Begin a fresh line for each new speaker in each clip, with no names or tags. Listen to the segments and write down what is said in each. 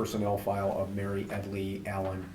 personnel file of Mary Edley Allen.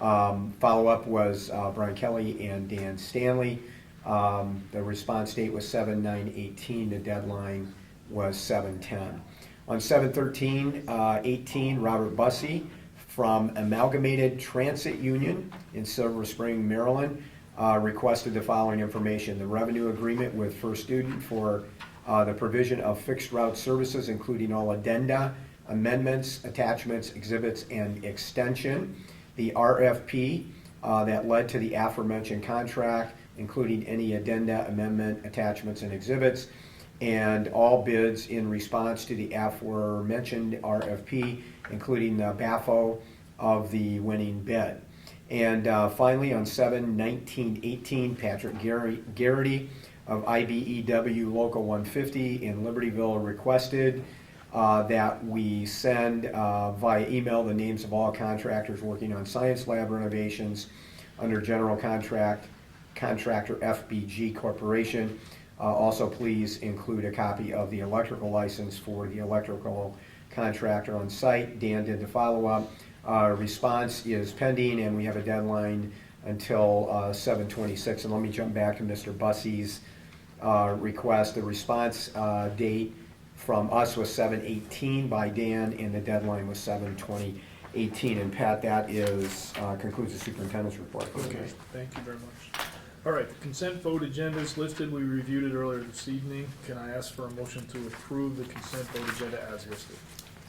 Um, Follow-up was uh, Brian Kelly and Dan Stanley. Um, The response date was seven nine eighteen, the deadline was seven ten. On seven thirteen, uh, eighteen, Robert Bussey from Amalgamated Transit Union in Silver Spring, Maryland, uh, requested the following information. The revenue agreement with First Student for uh, the provision of fixed route services, including all addenda, amendments, attachments, exhibits, and extension. The RFP uh, that led to the aforementioned contract, including any addenda, amendment, attachments, and exhibits. And all bids in response to the aforementioned RFP, including the BAFO of the winning bid. And uh, finally, on 7 19 18, Patrick Gary- Garrity of IBEW Local 150 in Libertyville requested uh, that we send uh, via email the names of all contractors working on science lab renovations under general contract contractor FBG Corporation. Uh, Also, please include a copy of the electrical license for the electrical contractor on site. Dan did the follow-up. Uh, Response is pending, and we have a deadline until uh, 7/26. And let me jump back to Mr. Bussey's uh, request. The response uh, date from us was 7/18 by Dan, and the deadline was 7/20/18. And Pat, that is, uh, concludes the superintendent's report.
Okay, thank you very much. All right, the consent vote agenda is listed, we reviewed it earlier this evening. Can I ask for a motion to approve the consent vote agenda as listed?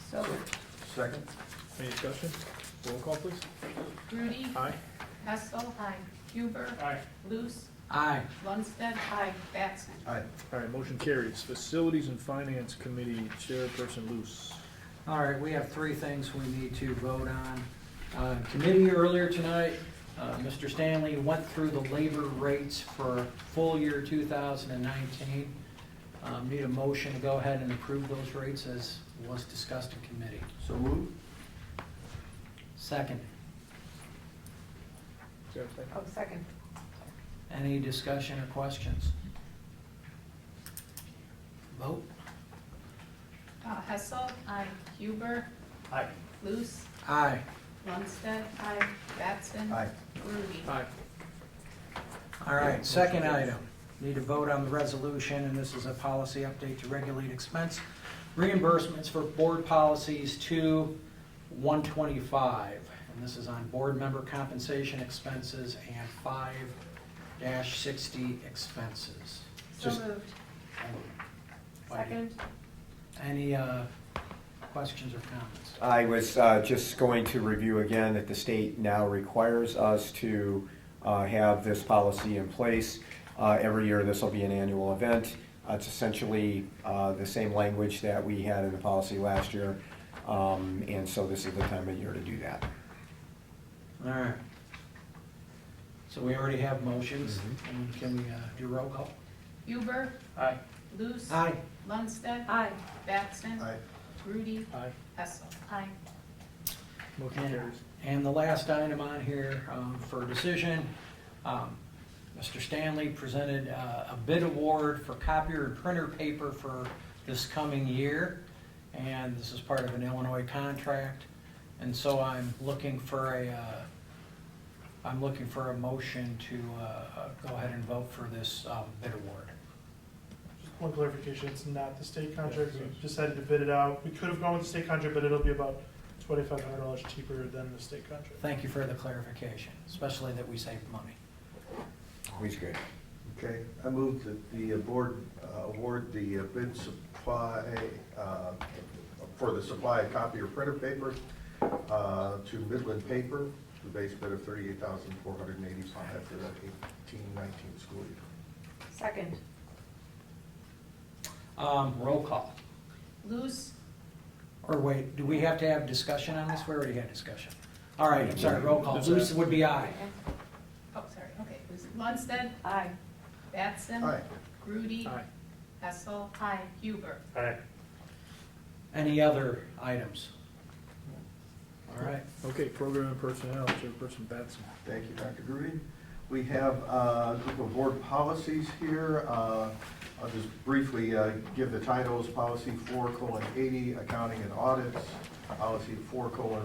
So
Second?
Any discussion? Roll call, please.
Grudy,
Aye.
Hessel. Aye. Huber.
Aye.
Luce.
Aye.
Lundstedt. Aye. Batson.
Aye.
All right, motion carries. Facilities and Finance Committee Chairperson Luce.
All right, we have three things we need to vote on. Uh, Committee earlier tonight, uh, Mr. Stanley went through the labor rates for full year 2019. Um, Need a motion to go ahead and approve those rates as was discussed in committee.
So move.
Second,
Is there a second?
Oh, second.
any discussion or questions? Vote?
Uh, Hessel. Aye. Huber.
Aye.
Luce.
Aye.
Lundstedt. Aye. Batson.
Aye.
Grudy.
Aye.
All right, second item, need to vote on the resolution, and this is a policy update to regulate expense reimbursements for board policies two, one twenty-five. And this is on board member compensation expenses and five dash sixty expenses.
So
Just-
moved.
Any-
Second.
Any, uh, questions or comments?
I was uh, just going to review again that the state now requires us to uh, have this policy in place. Uh, Every year, this will be an annual event. Uh, It's essentially uh, the same language that we had in the policy last year, Um, and so this is the time of year to do that.
All right. So we already have motions, and can we, uh, do roll call?
Huber.
Aye.
Luce.
Aye.
Lundstedt. Aye. Batson.
Aye.
Grudy.
Aye.
Hessel. Aye.
Motion carries.
And the last item on here um, for decision, um, Mr. Stanley presented uh, a bid award for copier and printer paper for this coming year. And this is part of an Illinois contract. And so I'm looking for a, uh, I'm looking for a motion to uh, go ahead and vote for this um, bid award.
Just one clarification, it's not the state contract,
Yeah,
we
it's-
decided to bid it out, we could have gone with the state contract, but it'll be about twenty-five hundred dollars cheaper than the state contract.
Thank you for the clarification, especially that we saved money.
Always good.
Okay, I move that the board uh, award the uh, bid supply, uh, for the supply of copy or printer paper uh, to Midland Paper, the base bid of thirty-eight thousand four hundred and eighty-five for the eighteen nineteen school year.
Second.
Um, Roll call.
Luce.
Or wait, do we have to have discussion on this? We already had discussion. All right, I'm sorry, roll call.
Yes,
Luce
ma'am.
would be aye.
Oh, sorry, okay. Luce. Lundstedt. Aye. Batson.
Aye.
Grudy.
Aye.
Hessel. Aye. Huber.
Any other items? All right,
Okay, Program and Personnel Chairperson Batson.
Thank you, Dr. Grudy. We have uh, a group of board policies here. Uh, I'll just briefly uh, give the titles, policy four colon eighty, accounting and audits, policy four colon